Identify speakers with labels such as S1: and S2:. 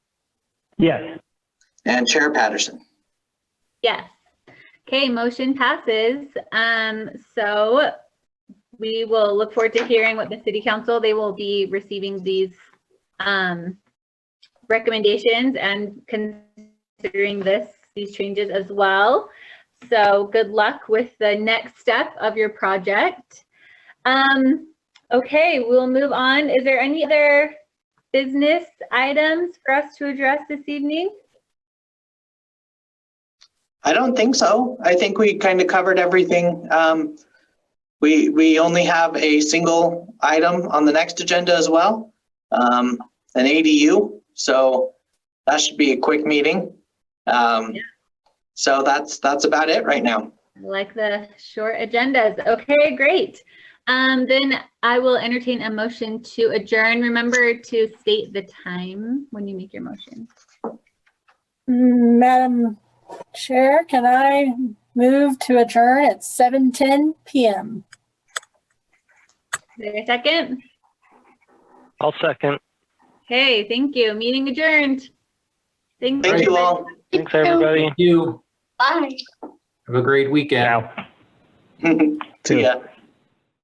S1: Yes.
S2: and Chair Patterson.
S3: Yes. Okay, motion passes. Um, so we will look forward to hearing what the city council, they will be receiving these um recommendations and considering this, these changes as well. So good luck with the next step of your project. Um, okay, we'll move on. Is there any other business items for us to address this evening?
S2: I don't think so. I think we kind of covered everything. Um, we, we only have a single item on the next agenda as well, um, an ADU. So that should be a quick meeting. Um, so that's, that's about it right now.
S3: I like the short agendas. Okay, great. Um, then I will entertain a motion to adjourn. Remember to state the time when you make your motion.
S4: Madam Chair, can I move to adjourn at 7:10 PM?
S3: Is there a second?
S1: I'll second.
S3: Okay, thank you. Meeting adjourned. Thank
S2: Thank you all.
S1: Thanks, everybody.
S5: Thank you.
S3: Bye.
S5: Have a great weekend.
S1: Ciao.
S2: See ya.